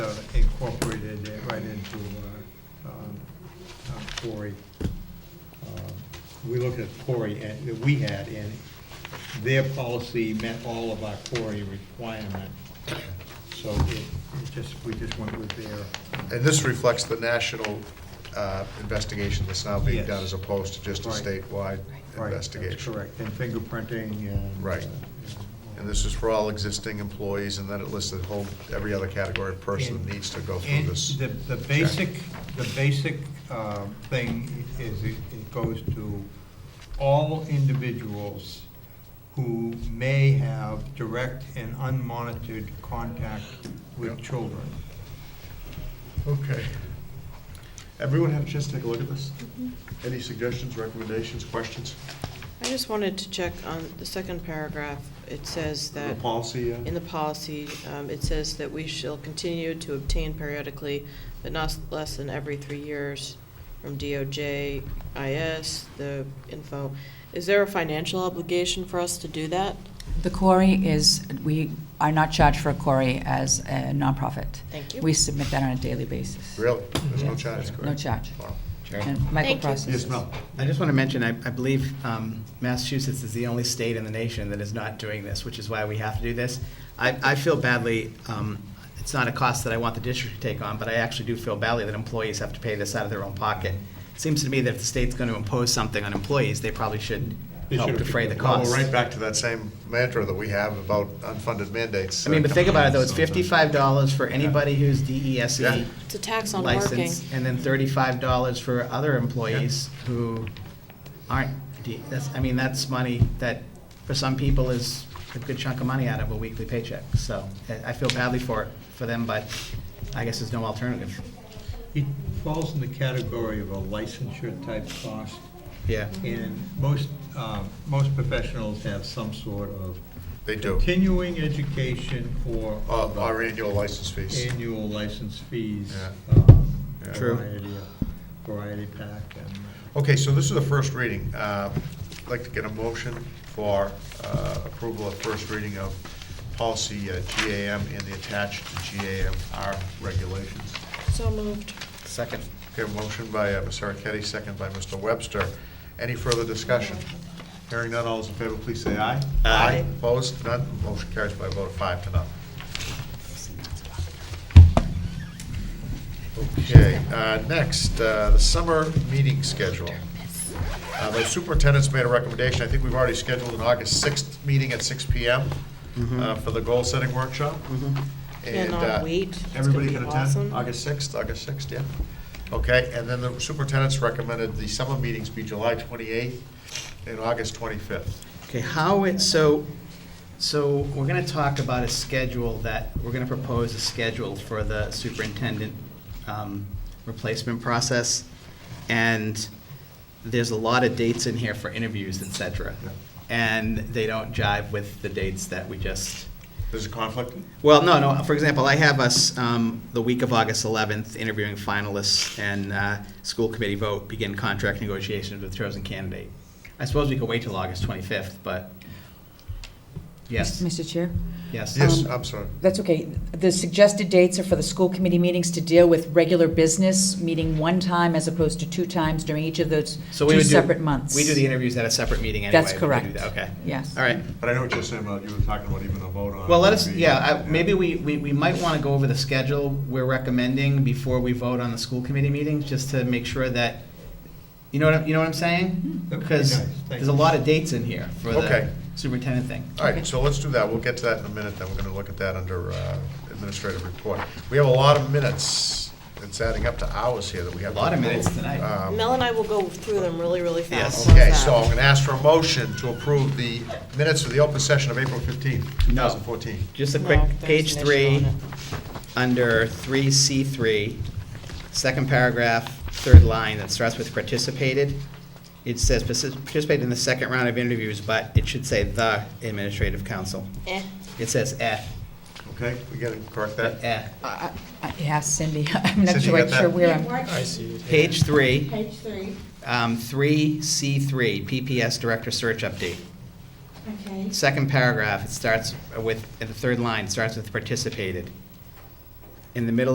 uh, relation to uh, um, uh, Cory. Um, We looked at Cory, and, that we had, and their policy met all of our Cory requirement. So it it just, we just went with their. And this reflects the national uh, investigation that's now being Yes. done as opposed to just a Right. statewide Right, that's investigation. Correct, and fingerprinting and. Right. uh, And this is for all existing employees, and then it lists the whole, every other category of person And- that needs to go through And this. the, the check. basic, the basic um, thing is it it goes to all individuals who may have direct and unmonitored contact with Yep. children. Okay. Everyone have a chance to take a look at this? Mm-hmm. Any suggestions, recommendations, questions? I just wanted to check on the second paragraph. It says The that, policy? uh, in the policy, um, it says that we shall continue to obtain periodically, but not less than every three years, from DOJ, IS, the info. Is there a financial obligation for us to do that? The quarry is, we are not charged for a quarry as a nonprofit. Thank you. We submit that on a daily basis. Really? There's no Mm-hmm. Yes. charge? No charge. Wow. And Michael Thank you. processes. Yes, Mel? I just want to mention, I, I believe um, Massachusetts is the only state in the nation that is not doing this, which is why we have to do this. I, I feel badly, um, it's not a cost that I want the district to take on, but I actually do feel badly that employees have to pay this out of their own pocket. It Seems to me that if the state's going to impose something on employees, they probably should They help should have defray the picked it Well, cost. we're right back to that same mantra that we have about unfunded mandates. I mean, but think about it, though, it's So- fifty-five dollars for anybody who's E Yeah. DESE It's a tax on working. licensed, and then thirty-five dollars for other employees who aren't, D- that's, I mean, that's money that, for some people, is a good chunk of money out of a weekly paycheck, so I- I feel badly for, it for them, but I guess there's no alternative. It falls in the category of a licensure-type cost, Yeah. and most, um, most professionals have some sort of They do. continuing education or. Uh, Our annual license fees. annual license fees. Yeah. um, Yeah. True. variety of- Variety pack and. Okay, so this is the first reading. Uh, I'd like to get a motion for uh, approval of first reading of policy uh, GAM and the attached GAMR regulations. So moved. Second. Okay, motion by uh, Ms. Araketti, second by Mr. Webster. Any further discussion? Hearing none, all those in favor, please say aye. Aye. Opposed? None. Motion carries by a vote of five to none. Okay, uh, next, uh, the summer meeting schedule. Uh, The superintendent's made a recommendation, I think we've already scheduled an August 6th meeting at 6 PM Mm-hmm. uh, for the goal-setting workshop. And, Cannot uh, wait. It's gonna Everybody be can attend, awesome. August 6th, August 6th, yeah. Okay, and then the superintendent's recommended the summer meetings be July 28th and August 25th. Okay, how it, so, so we're gonna talk about a schedule that, we're gonna propose a schedule for the superintendent um, replacement process. And there's a lot of dates in here for interviews, et cetera. Yeah. And they don't jive with the dates that we just, There's a conflict? well, no, no, for example, I have us, um, the week of August eleventh, interviewing finalists and, uh, school committee vote, begin contract negotiations with chosen candidate. I suppose we could wait till August twenty-fifth, but, yes, Mr. Chair? yes. Yes, Um, I'm sorry. That's okay. The suggested dates are for the school committee meetings to deal with regular business, meeting one time as opposed to two times during each of those So we two would do- separate months. We do the interviews at a separate meeting anyway. That's We could do correct. that, Okay, Yes. all right. But I know what you're saying, about you were talking about even a vote on. Well, let us, would be- yeah, I- maybe we, we, we might want to go over the schedule we're recommending before we vote on the school committee meetings, just to make sure that, you know what, I'm- you know what I'm saying? Mm-hmm. That would be Because nice, thank there's a you. lot of dates in here for Okay. the superintendent thing. All right, so let's do that. We'll get to that in a minute, then we're going to look at that under uh, administrative report. We have a lot of minutes. It's adding up to hours here that we have. A lot of to approve. minutes tonight. Uh, Um, Mel and I will go through them really, really fast. Yes. How's Okay, that? so I'm going to ask for a motion to approve the minutes of the open session of April 15th, No. 2014. Just a No, quick, there's page an issue three, on it. under three C three, second paragraph, third line, that starts with participated. It says "Partici- participated in the second round of interviews, but it should say the administrative council. Eh. It says eh, Okay, we got to correct that? eh. I- I- Yeah, Cindy, I'm not Cindy, sure you got that? sure where I'm. What? uh, Page three, Page three, um, three C three, PPS director search update. okay. Second paragraph, it starts with, at the third line, it starts with participated. In the middle